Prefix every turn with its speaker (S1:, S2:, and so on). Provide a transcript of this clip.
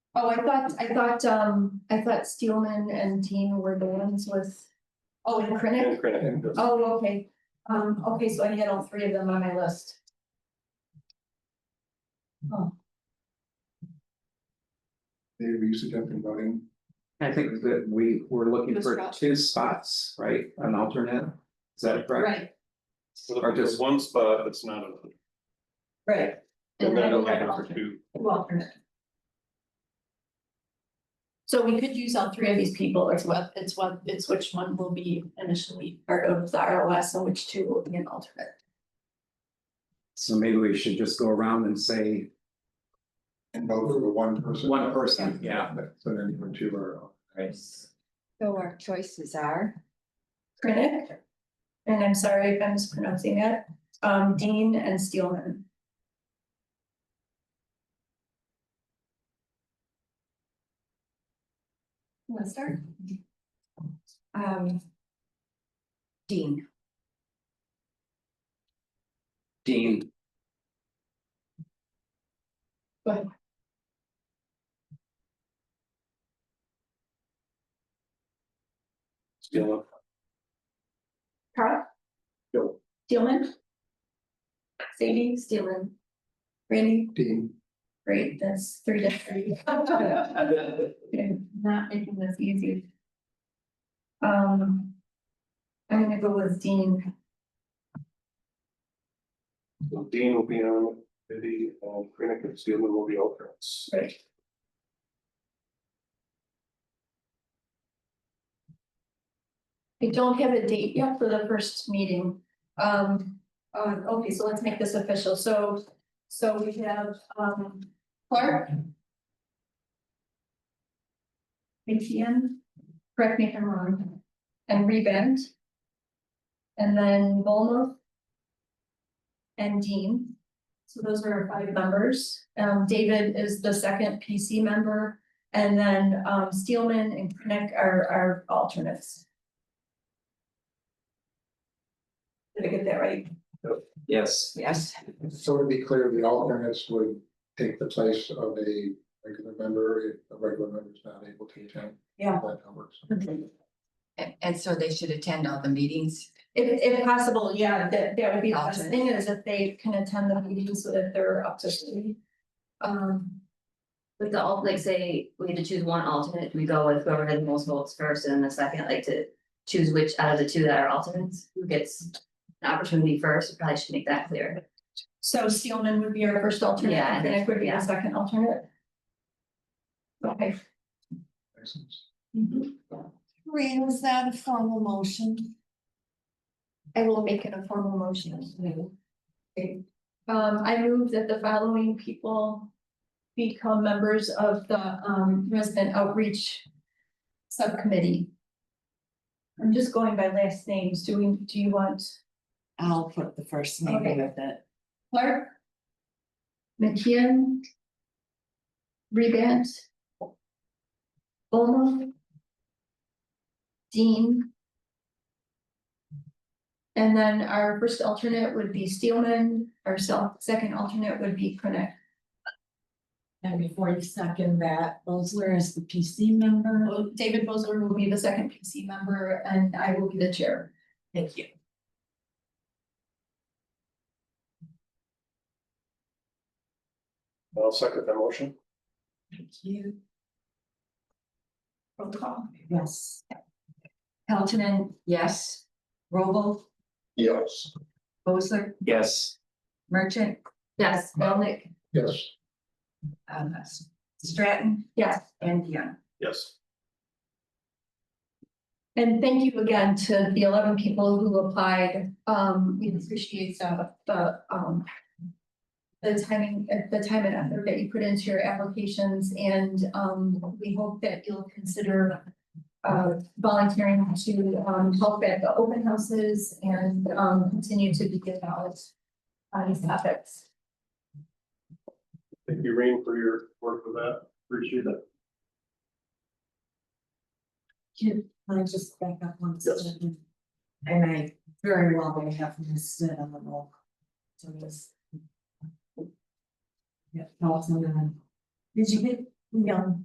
S1: Oh, I thought, I thought, um, I thought Steelman and Teen were the ones with, oh, and Krenick. Oh, okay. Um, okay, so I had all three of them on my list.
S2: They were usually jumping about him.
S3: I think that we were looking
S4: Mr.
S3: for
S4: Rogers.
S3: two spots, right, an alternate, is that correct?
S4: Right,
S3: Or just-
S5: one spot that's not a.
S4: right,
S5: And
S1: And
S5: then
S1: then
S5: a
S1: we have
S5: line for
S1: alternate.
S5: two.
S4: two alternate. So we could use all three of these people, it's what, it's what, it's which one will be initially part of the ROS and which two will be an alternate.
S3: So maybe we should just go around and say
S2: And both were one person.
S3: one person, yeah.
S2: So then you were two or.
S6: So our choices are,
S1: Krenick. And I'm sorry if I'm mispronouncing it, um, Dean and Steelman.
S4: You wanna start?
S6: um. Dean,
S3: Dean,
S5: Still,
S1: Carl?
S5: No.
S1: Steelman? Sadie, Steelman. Randy,
S2: Dean,
S1: great, that's three to three. Okay, Not making this easy. Um. I'm gonna go with Dean,
S5: Dean will be on, Vivi and Krenick and Steelman will be alternates.
S1: right? We don't have a date yet for the first meeting. Um, uh, okay, so let's make this official. So, so we have, um, Clark. McKeon, correct me if I'm wrong, and Rebend. And then Volmo. And Dean. So those are our five members. Um, David is the second PC member. And then, um, Steelman and Krennic are, are alternates. Did I get that right?
S3: yes,
S6: yes,
S2: so to be clear, the alternates would take the place of a regular member if a regular member is not able to attend.
S1: Yeah.
S2: That works.
S6: and, and so they should attend all the meetings.
S1: If, if possible, yeah, that, that would be the best
S6: Alternate.
S1: thing is if they can attend the meetings so that they're up to speed. Um,
S7: With the, al- like, say, we had to choose one alternate, do we go with whoever had the most votes first and then the second, like, to choose which out of the two that are alternates, who gets an opportunity first, We probably should make that clear.
S1: so Steelman would be our first alternate,
S7: Yeah, I
S1: and
S7: think-
S1: Krennic would be
S7: yeah.
S1: our second alternate. Okay,
S2: Makes sense.
S4: Maureen, was that a formal motion?
S1: I will make it a formal motion. Okay. Um, I move that the following people become members of the, um, resident outreach subcommittee. I'm just going by last names. Do we, do you want
S4: I'll put the first
S1: name
S4: with it.
S1: Clark? McKeon? Rebant? Olmo? Dean? And then our first alternate would be Steelman, our sel- second alternate would be Krennic.
S4: And before you second that, Bosler is the PC member.
S1: David Bosler will be the second PC member and I will be the chair.
S4: Thank you.
S5: I'll second that motion.
S4: Thank you.
S1: Roll call.
S4: Yes.
S1: Peltonen,
S6: Yes,
S4: Robel,
S2: Yes.
S4: Bosler,
S3: yes,
S4: Merchant,
S7: Yes,
S1: Melnick,
S2: Yes,
S4: um, Stratton
S1: yes.
S4: and Young.
S5: Yes.
S1: And thank you again to the eleven people who applied. Um, we appreciate the, the, um. The timing, uh, the time and effort that you put into your applications and, um, we hope that you'll consider. Uh, volunteering to, um, help at the open houses and, um, continue to be given out on these topics.
S5: Thank you, Rain, for your work with that. Appreciate it.
S8: Can I just back up one
S5: Yes.
S8: second? And I very well may have missed it on the roll. So this. Yeah, Paul's on the line. Did you get Young?